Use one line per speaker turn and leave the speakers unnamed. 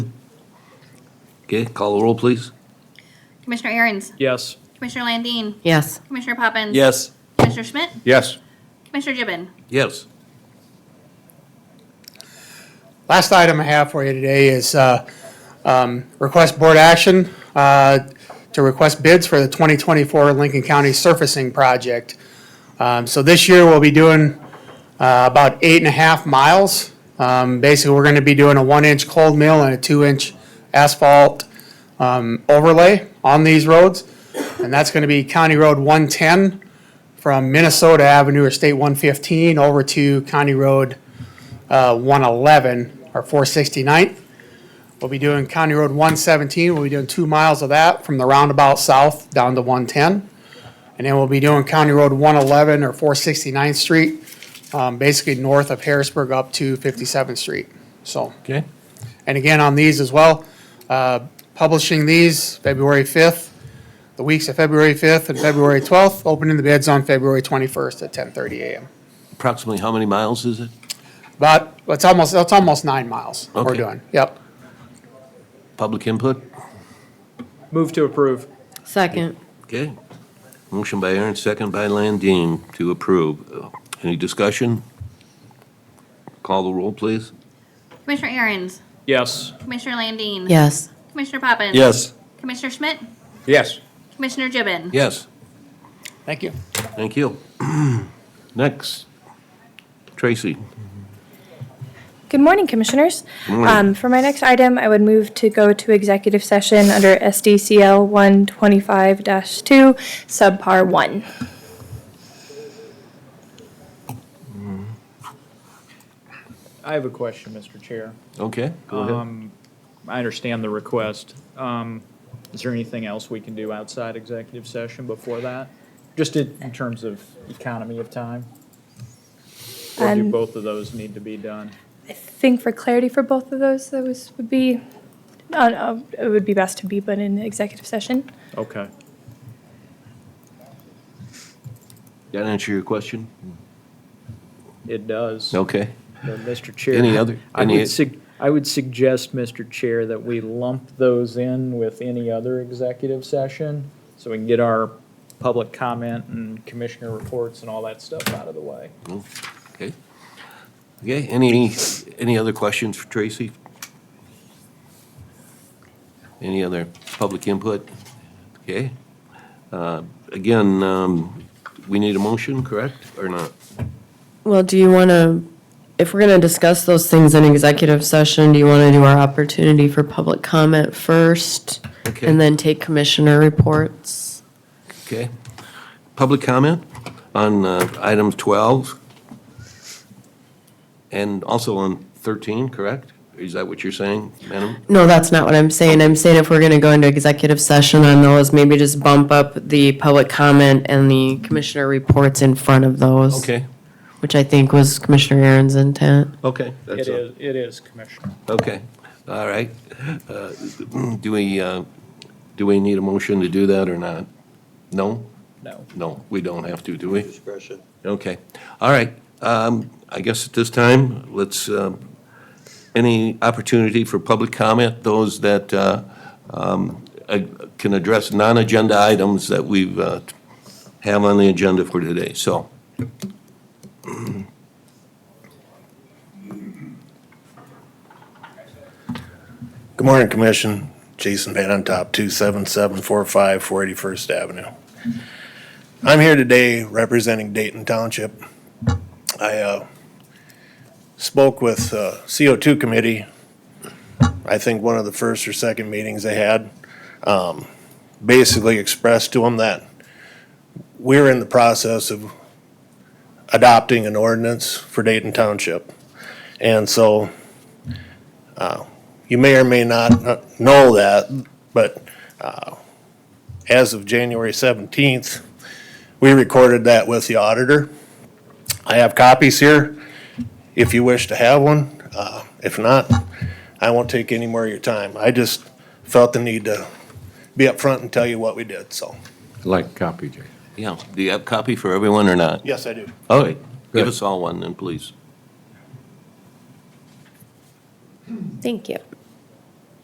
Okay, call the roll, please.
Commissioner Aaron's,
Yes.
Commissioner Landine,
Yes.
Commissioner Poppins.
Yes.
Commissioner Schmidt,
Yes.
Commissioner Gibbon.
Yes.
Last item I have for you today is uh, um, request board action uh, to request bids for the 2024 Lincoln County surfacing project. Um, So this year, we'll be doing uh, about eight and a half miles. Um, Basically, we're going to be doing a one-inch cold mill and a two-inch asphalt um, overlay on these roads. And that's going to be County Road 110 from Minnesota Avenue or State 115 over to County Road uh, 111 or 469th. We'll be doing County Road 117, we'll be doing two miles of that from the roundabout south down to 110. And then we'll be doing County Road 111 or 469th Street, um, basically north of Harrisburg up to 57th Street, so.
Okay.
And again, on these as well, uh, publishing these February 5th, the weeks of February 5th and February 12th, opening the bids on February 21st at 10:30 a.m.
Approximately how many miles is it?
But it's almost, it's almost nine miles we're
Okay.
doing. Yep.
Public input?
Move to approve.
Second.
Okay. Motion by Aaron, second by Landine to approve. Uh, Any discussion? Call the roll, please.
Commissioner Aaron's,
Yes.
Commissioner Landine.
Yes.
Commissioner Poppins.
Yes.
Commissioner Schmidt,
Yes.
Commissioner Gibbon.
Yes,
Thank you.
thank you. Next, Tracy.
Good morning, Commissioners. Um, For my next item, I would move to go to executive session under SDCL 125-2, subpar 1.
I have a question, Mr. Chair. Um,
Okay, go ahead.
I understand the request. Um, Is there anything else we can do outside executive session before that? Just in in terms of economy of time? Or do
Um,
both of those need to be done?
I think for clarity for both of those, those would be, uh, uh, it would be best to be put in executive session.
Okay.
That answer your question?
It does.
Okay.
But, Mr. Uh, Chair.
Any other-
I
any-
would sug, I would suggest, Mr. Chair, that we lump those in with any other executive session so we can get our public comment and commissioner reports and all that stuff out of the way.
Okay. Okay, any, any other questions for Tracy? Any other public input? Okay. Uh, Again, um, we need a motion, correct, or not?
Well, do you want to, if we're going to discuss those things in executive session, do you want to do our opportunity for public comment first?
Okay.
And then take commissioner reports?
Okay. Public comment on uh, item 12 and also on 13, correct? Is that what you're saying, madam?
No, that's not what I'm saying. I'm saying if we're going to go into executive session on those, maybe just bump up the public comment and the commissioner reports in front of those.
Okay,
Which I think was Commissioner Aaron's intent.
okay. that's
It
all.
is, it is, Commissioner.
Okay, all right. Uh, Do we, uh, do we need a motion to do that or not? No?
No.
No, we don't have to, do we? Discretion. Okay, all right. Um, I guess at this time, let's, um, any opportunity for public comment, those that uh, um, uh, can address non-agenda items that we've, uh, have on the agenda for today, so.
Good morning, Commission. Jason Van Antop, 27745 481st Avenue. I'm here today representing Dayton Township. I uh, spoke with uh, CO2 Committee, I think one of the first or second meetings they had. um, Basically expressed to them that we're in the process of adopting an ordinance for Dayton Township. And so you may or may not know that, but uh, as of January 17th, we recorded that with the auditor. I have copies here if you wish to have one. Uh, If not, I won't take any more of your time. I just felt the need to be upfront and tell you what we did, so.
Like copy, Jay.
Yeah, do you have copy for everyone or not?
Yes, I do.
All right, give
Good.
us all one then, please.
Thank you.